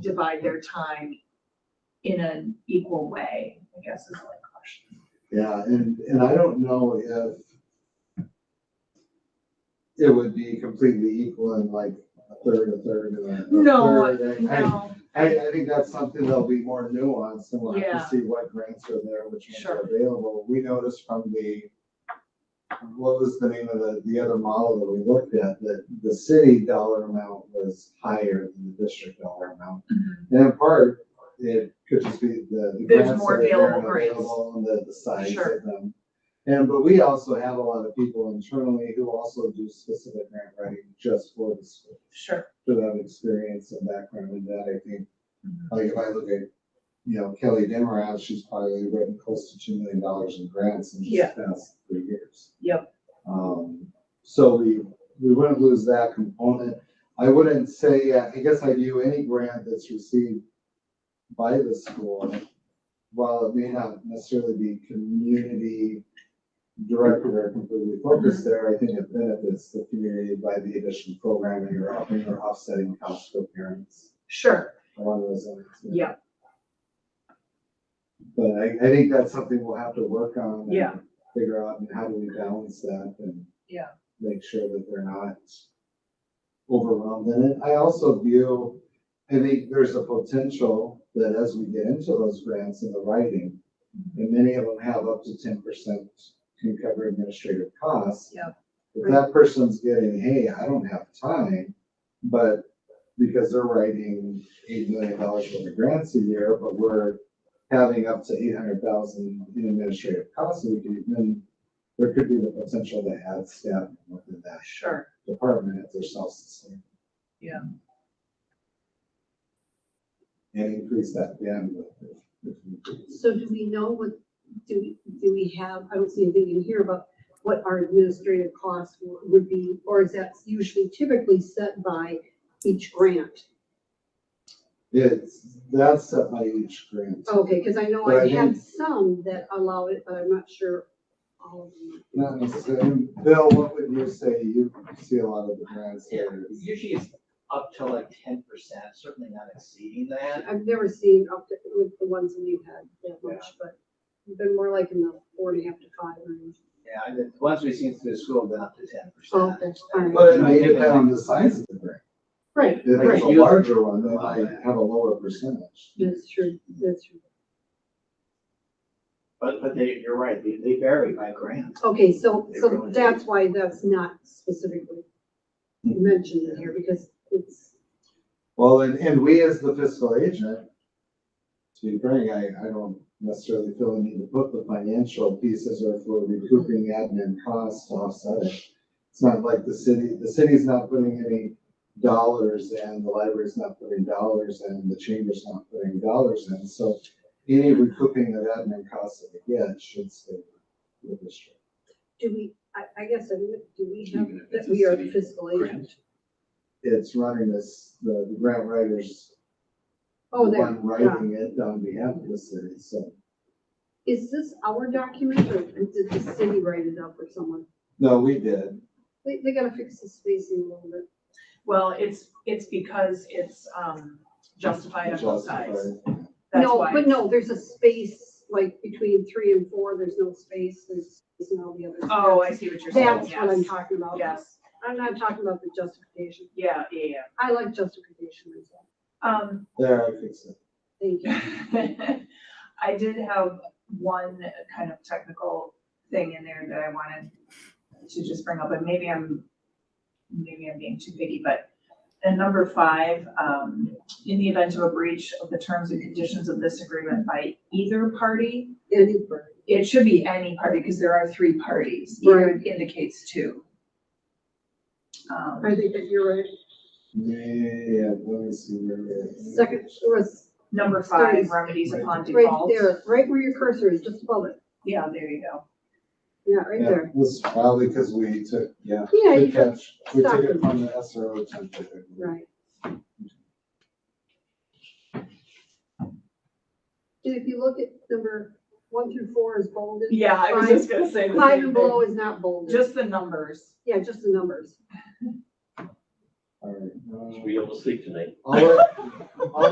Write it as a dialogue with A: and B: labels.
A: divide their time in an equal way, I guess is my question.
B: Yeah, and, and I don't know if it would be completely equal in like a third, a third, and a a
A: No,
B: third. and I-
A: No,
B: I, I think that's something that'll be more nuanced and we'll have
A: Yeah.
B: to see what grants are there, which ones are
A: Sure.
B: available. We noticed from the, what was the name of the, the other model that we looked at, that the city dollar amount was higher than the district dollar amount.
A: Mhm.
B: And in part, it could just be the. the
A: There's
B: grants
A: more
B: that are there and
A: available grants.
B: available And the, the size
A: Sure.
B: of them. And, but we also have a lot of people internally who also do specific grant writing just for the school
A: sure.
B: for that experience and background in that, I think.
A: Mhm.
B: Like if I look at, you know, Kelly Demarav, she's probably written close to two million dollars in grants in
A: Yeah.
B: just the past three years.
A: Yep.
B: Um, so we, we wouldn't lose that component. I wouldn't say, I guess I view any grant that's received by the school, while it may not necessarily be community directed or completely focused there, I think it benefits the community by the additional programming or offering or offsetting costs for parents
A: Sure,
B: along those lines.
A: yeah.
B: But I, I think that's something we'll have to work on. and
A: Yeah.
B: Figure out and how do we balance that and.
A: Yeah.
B: Make sure that they're not overwhelmed in it. I also view, I think there's a potential that as we get into those grants and the writing, and many of them have up to ten percent can cover administrative costs.
A: Yep.
B: If that person's getting, hey, I don't have time, but because they're writing eight million dollars worth of grants a year, but we're having up to eight hundred thousand in administrative costs, we could, then there could be the potential to add staff within that
A: Sure,
B: department if they're self-sustaining.
A: Yeah.
B: And increase that bandwidth. if- if we-
C: So do we know what, do, we do we have, I don't see anything in here about what our administrative costs wo- would be, or is that usually typically set by each grant?
B: It's, that's set by each
A: Oh,
B: grant.
C: Okay, because I know
B: But I
C: I had some that allow it, but I'm not sure. all of them.
B: Not necessarily, um, Bill, what would you say, you see a lot of the grants
D: Yeah,
B: there.
D: Usually it's up to like ten percent, certainly not exceeding that.
C: I've never seen up to, with the ones that we've had that much, but we've been more like in the four and a half to five range.
D: Yeah, I did, once we've seen through the school, then up to ten
C: Oh,
D: percent.
C: that's fine.
B: But it may depend on the size of the grant.
C: Right,
B: If it's a
D: Right.
B: larger one, they might have a lower percentage.
C: that's true, that's true.
D: But, but they, you're right, they, they vary by grant.
C: Okay, so,
D: It
C: so
D: really is.
C: that's why that's not specifically mentioned in here, because it's,
B: Well, and, and we as the fiscal agent, to be frank, I, I don't necessarily feel the need to put the financial pieces or for recouping admin costs to offset it. It's not like the city, the city's not putting any dollars in, the library's not putting dollars in, the chamber's not putting dollars in. So any recouping of admin costs that we get should stay with the district.
C: do we, I, I guess, I mean, do we have,
E: Even if it's
C: that
E: a
C: we are the
E: city
C: fiscal agent?
B: It's running this, the the grant writers, the
C: Oh, there,
B: one writing it on behalf of the city, so.
C: is this our document, or did the city write it up or someone?
B: No, we did.
C: They, they gotta fix the spacing a little bit.
A: well, it's, it's because it's, um, justified on both sides.
B: Justified.
A: That's
C: No,
A: why.
C: but no, there's a space, like, between three and four, there's no space, there's, there's all the other.
A: Oh, I
C: steps.
A: see what you're saying,
C: That's what I'm
A: yes,
C: talking about.
A: yes,
C: I'm not talking about the justification.
A: yeah, yeah, yeah.
C: I like justification myself.
A: Um,
B: There, I fixed it.
C: Thank you.
A: I did have one kind of technical thing in there that I wanted to just bring up, and maybe I'm, maybe I'm being too picky, but in number five, um, in the event of a breach of the terms and conditions of this agreement by either party,
C: Any further?
A: it should be any party, because there are three parties, either indicates two. Um,
C: I think that you're right.
B: Yeah, let me see where it is.
C: Second, it was
A: number five, remedies upon
C: right
A: default.
C: there, right where your cursor is, just above it.
A: Yeah, there you go.
C: Yeah, right
B: Yeah,
C: there.
B: it was probably because we took, yeah.
C: Yeah,
B: Good
C: you can,
B: catch. We took it
C: stop.
B: from the SRO template.
C: right. And if you look at number one through four is bolded.
A: Yeah, I was
C: Five-
A: just gonna say the same
C: Five and
A: thing.
C: below is not bolded.
A: Just the numbers.
C: Yeah, just the numbers.
B: All right.
E: Should be able to sleep tonight.
B: I'll let- I'll let